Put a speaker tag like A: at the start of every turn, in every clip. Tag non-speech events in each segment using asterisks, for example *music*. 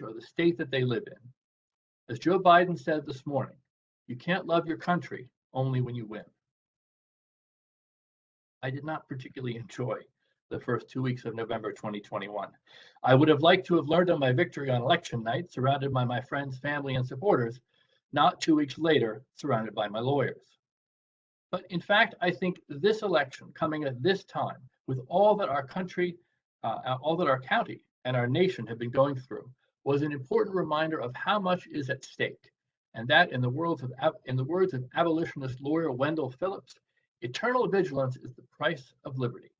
A: or the state that they live in. As Joe Biden said this morning, you can't love your country only when you win. I did not particularly enjoy the first two weeks of November 2021. I would have liked to have learned of my victory on election night, surrounded by my friends, family, and supporters, not two weeks later, surrounded by my lawyers. But in fact, I think this election coming at this time, with all that our country, uh, all that our county and our nation have been going through, was an important reminder of how much is at stake. And that, in the words of, in the words of abolitionist lawyer Wendell Phillips, eternal vigilance is the price of liberty.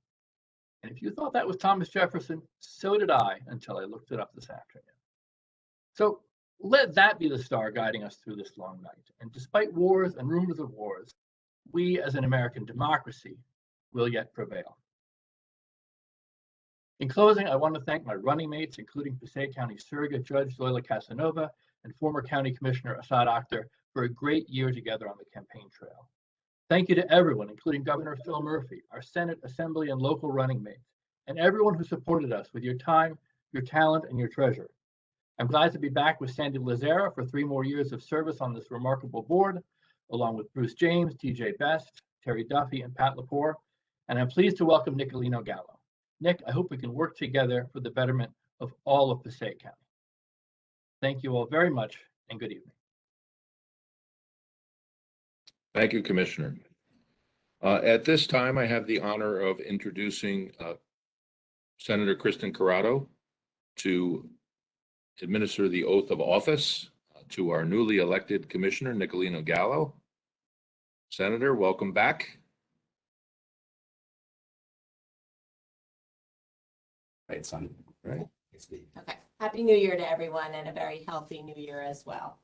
A: And if you thought that was Thomas Jefferson, so did I until I looked it up this afternoon. So let that be the star guiding us through this long night. And despite wars and rumors of wars, we as an American democracy will yet prevail. In closing, I want to thank my running mates, including Passaic County Surrogate Judge Zoila Casanova and former County Commissioner Assad Akhtar, for a great year together on the campaign trail. Thank you to everyone, including Governor Phil Murphy, our Senate, Assembly, and local running mates, and everyone who supported us with your time, your talent, and your treasure. I'm glad to be back with Sandy Lazara for three more years of service on this remarkable board, along with Bruce James, TJ Best, Terry Duffy, and Pat Lepore. And I'm pleased to welcome Nicolino Gallo. Nick, I hope we can work together for the betterment of all of Passaic County. Thank you all very much and good evening.
B: Thank you, Commissioner. Uh, At this time, I have the honor of introducing uh, Senator Kristen Carrado to administer the oath of office uh, to our newly elected Commissioner, Nicolino Gallo. Senator, welcome back.
C: Right, son.
B: Right.
D: Okay, happy new year to everyone and a very healthy new year as well.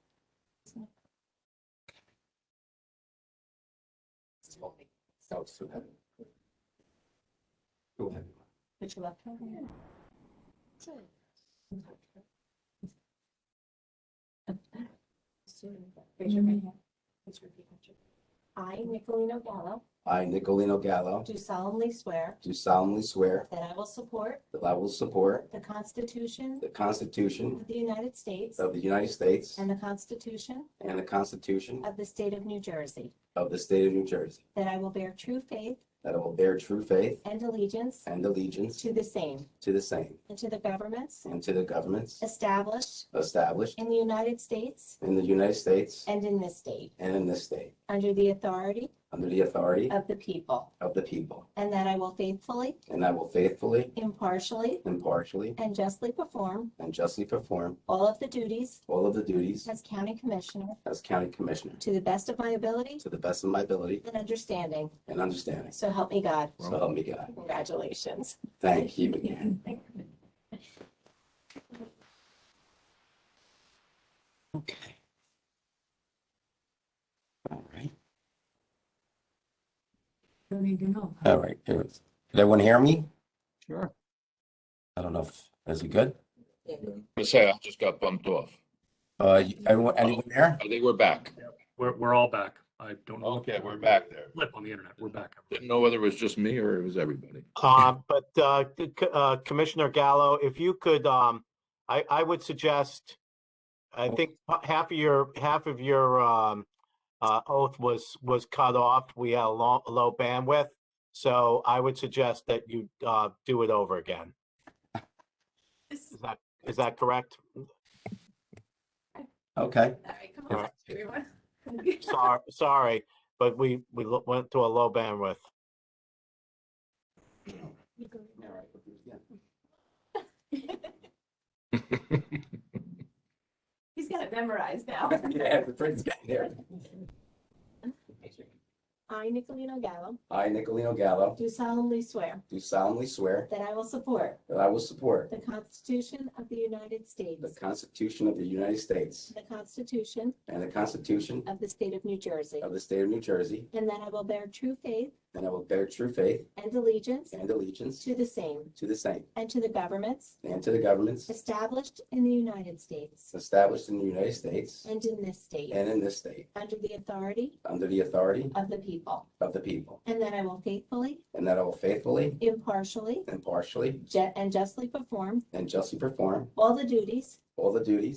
C: Go ahead.
D: Put your left hand on Raise your right hand. Please repeat after me. I, Nicolino Gallo,
C: I, Nicolino Gallo,
D: do solemnly swear
C: do solemnly swear
D: that I will support
C: that I will support
D: the Constitution
C: the Constitution
D: of the United States
C: of the United States
D: and the Constitution
C: and the Constitution
D: of the State of New Jersey,
C: of the State of New Jersey,
D: that I will bear true faith
C: that I will bear true faith
D: and allegiance
C: and allegiance
D: to the same
C: to the same
D: and to the governments
C: and to the governments
D: established
C: established
D: in the United States
C: in the United States
D: and in this state,
C: and in this state,
D: under the authority
C: under the authority
D: of the people,
C: of the people,
D: and that I will faithfully,
C: and I will faithfully,
D: impartially,
C: impartially,
D: and justly perform
C: and justly perform
D: all of the duties
C: all of the duties
D: as County Commissioner
C: as County Commissioner
D: to the best of my ability
C: to the best of my ability
D: and understanding.
C: and understanding.
D: So help me God.
C: So help me God.
D: Congratulations.
C: Thank you again. Okay. All right.
E: Don't need to know.
C: All right. Here it is. Did everyone hear me?
A: Sure.
C: I don't know if, is it good?
B: I say, I just got bumped off.
C: Uh, you- everyone, anyone there?
B: I think we're back.
F: We're, we're all back. I don't know.
B: Okay, we're back there.
F: Flip on the internet. We're back.
B: Didn't know whether it was just me or it was everybody. *laughs*
G: Uh, But uh, c- c- uh, Commissioner Gallo, if you could, um, I, I would suggest, I think h- half of your, half of your um, uh, oath was, was cut off. We had a long, low bandwidth. So I would suggest that you uh, do it over again. Is that, is that correct?
C: Okay.
G: on,
D: everyone.
G: Sorry, sorry, but we, we lo- went to a low bandwidth.
D: He's got it memorized now.
C: Yeah, the prince got there.
D: I, Nicolino Gallo,
C: I, Nicolino Gallo,
D: do solemnly swear
C: do solemnly swear
D: that I will support
C: that I will support
D: the Constitution of the United
C: the
D: States
C: Constitution of the United States
D: The Constitution
C: and the Constitution
D: of the State of New Jersey.
C: of the State of New Jersey,
D: And that I will bear true faith
C: and I will bear true faith
D: and allegiance
C: and allegiance
D: to the same
C: to the same
D: and to the governments
C: and to the governments
D: established in the United States
C: established in the United States
D: and in this state,
C: and in this state,
D: under the authority
C: under the authority
D: of the people.
C: of the people,
D: And that I will faithfully,
C: and that I will faithfully,
D: impartially,
C: impartially,
D: ju- and justly perform
C: and justly perform
D: all the duties
C: all the duties